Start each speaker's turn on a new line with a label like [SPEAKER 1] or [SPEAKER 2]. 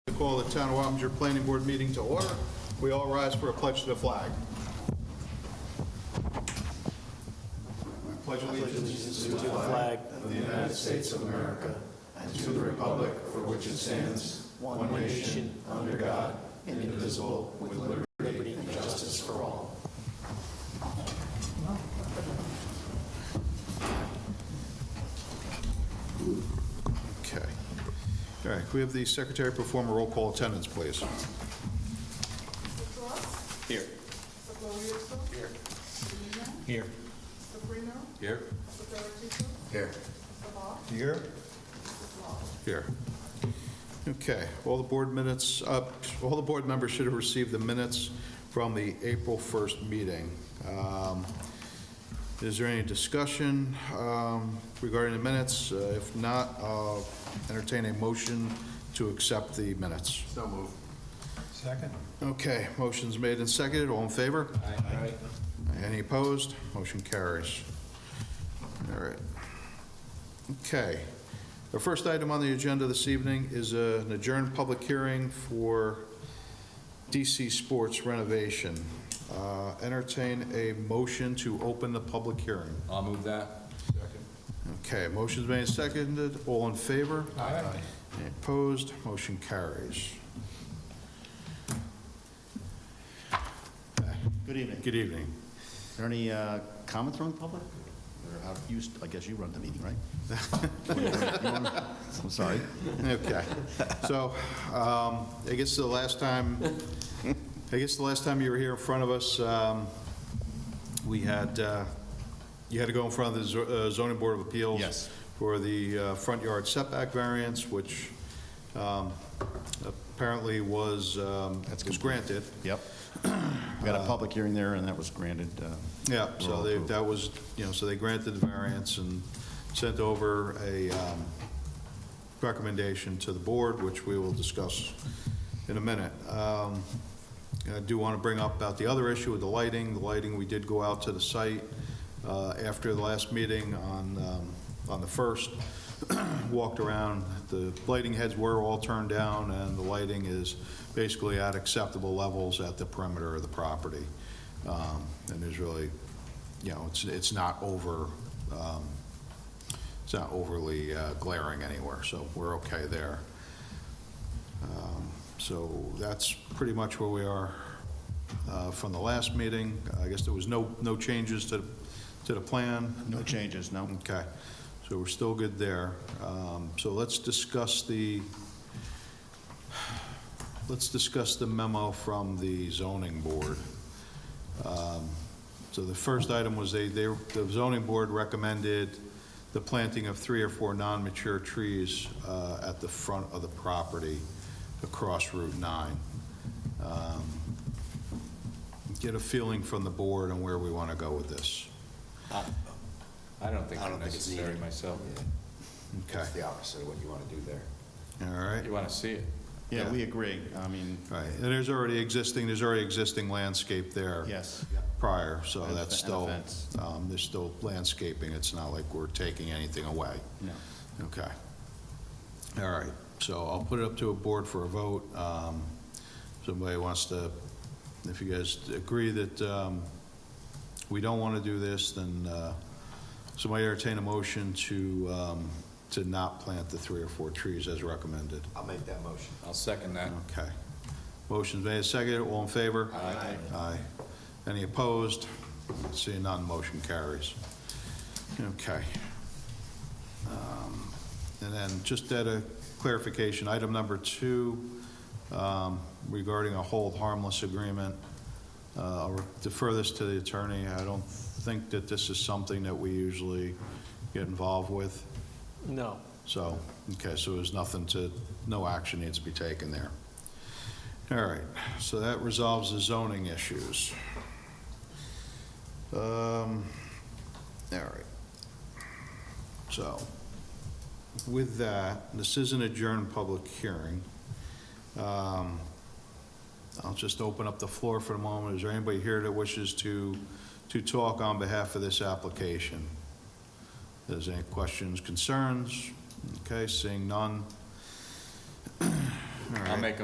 [SPEAKER 1] call the Town of Wappinger Planning Board meeting to order. We all rise for a pledge to the flag. I pledge allegiance
[SPEAKER 2] flag
[SPEAKER 1] Okay. All right, can we have the secretary perform a roll call attendance, please?
[SPEAKER 3] Mr. Cross?
[SPEAKER 1] Here.
[SPEAKER 3] Mr. Glorioso? Here. Mr. Lino?
[SPEAKER 1] Here.
[SPEAKER 3] Mr. Prino?
[SPEAKER 1] Here.
[SPEAKER 3] Mr. Ferricino?
[SPEAKER 1] Here.
[SPEAKER 3] Mr. Hall?
[SPEAKER 1] Here? Here. Okay, all the board minutes, uh, all the board members should have received the minutes from the April 1st meeting. Um, Is there any discussion um, regarding the minutes? Uh, If not, I'll entertain a motion to accept the minutes.
[SPEAKER 4] So move.
[SPEAKER 5] Second?
[SPEAKER 1] Okay, motion's made and seconded, all in favor?
[SPEAKER 5] Aye.
[SPEAKER 1] Any opposed? Motion carries. All right. Okay. The first item on the agenda this evening is uh, an adjourned public hearing for DC Sports renovation. Uh, Entertain a motion to open the public hearing.
[SPEAKER 4] I'll move that.
[SPEAKER 1] Okay, motion's made and seconded. All in favor?
[SPEAKER 5] Aye.
[SPEAKER 1] Any opposed? Motion carries.
[SPEAKER 6] Good evening.
[SPEAKER 1] Good evening.
[SPEAKER 6] Are there any uh, comments from the public? Or how- you s- I guess you run the meeting, right? I'm sorry.
[SPEAKER 1] Okay, so, um, I guess the last time, I guess the last time you were here in front of us, um, we had, uh, you had to go in front of the zo- uh, zoning board of appeals.
[SPEAKER 6] Yes.
[SPEAKER 1] For the uh, front yard setback variance, which um, apparently was, um, was granted.
[SPEAKER 6] Yep. We got a public hearing there, and that was granted. uh,
[SPEAKER 1] Yeah, so
[SPEAKER 6] Rural
[SPEAKER 1] they,
[SPEAKER 6] approval.
[SPEAKER 1] that was, you know, so they granted the variance and sent over a um, recommendation to the board, which we will discuss in a minute. Um, I do want to bring up about the other issue with the lighting. The lighting, we did go out to the site uh, after the last meeting on, um, on the 1st, walked around. The lighting heads were all turned down, and the lighting is basically at acceptable levels at the perimeter of the property. Um, And there's really, you know, it's, it's not over, um, it's not overly uh, glaring anywhere, so we're okay there. Um, So that's pretty much where we are uh, from the last meeting. I guess there was no, no changes to, to the plan?
[SPEAKER 6] No changes, no?
[SPEAKER 1] Okay, so we're still good there. Um, So let's discuss the, let's discuss the memo from the zoning board. Um, So the first item was they, they, the zoning board recommended the planting of three or four non-mature trees uh, at the front of the property across Route 9. Um, Get a feeling from the board on where we want to go with this.
[SPEAKER 4] I don't think
[SPEAKER 7] I
[SPEAKER 4] they're
[SPEAKER 7] don't think it's
[SPEAKER 4] necessary
[SPEAKER 7] needed.
[SPEAKER 4] myself.
[SPEAKER 1] Okay,
[SPEAKER 7] It's the opposite of what you want to do there.
[SPEAKER 1] all right.
[SPEAKER 4] You want to see it?
[SPEAKER 6] Yeah, we agree. I mean,
[SPEAKER 1] Right, and there's already existing, there's already existing landscape there.
[SPEAKER 6] yes.
[SPEAKER 1] Prior, so
[SPEAKER 6] And a
[SPEAKER 1] that's
[SPEAKER 6] fe- and a
[SPEAKER 1] still,
[SPEAKER 6] fence.
[SPEAKER 1] um, there's still landscaping, it's not like we're taking anything away.
[SPEAKER 6] No.
[SPEAKER 1] Okay. All right, so I'll put it up to a board for a vote. Um, Somebody wants to, if you guys agree that um, we don't want to do this, then uh, somebody entertain a motion to, um, to not plant the three or four trees as recommended.
[SPEAKER 7] I'll make that motion.
[SPEAKER 4] I'll second that.
[SPEAKER 1] Okay. Motion's made, seconded, all in favor?
[SPEAKER 7] Aye.
[SPEAKER 1] Aye. Any opposed? Seeing none, motion carries. Okay. Um, And then just at a clarification, item number two um, regarding a hold harmless agreement. Uh, I'll defer this to the attorney. I don't think that this is something that we usually get involved with.
[SPEAKER 2] No.
[SPEAKER 1] So, okay, so there's nothing to, no action needs to be taken there. All right, so that resolves the zoning issues. Um, All right. So, with that, this is an adjourned public hearing. Um, I'll just open up the floor for the moment. Is there anybody here that wishes to, to talk on behalf of this application? There's any questions, concerns? Okay, seeing none. All
[SPEAKER 4] I'll
[SPEAKER 1] right.
[SPEAKER 4] make a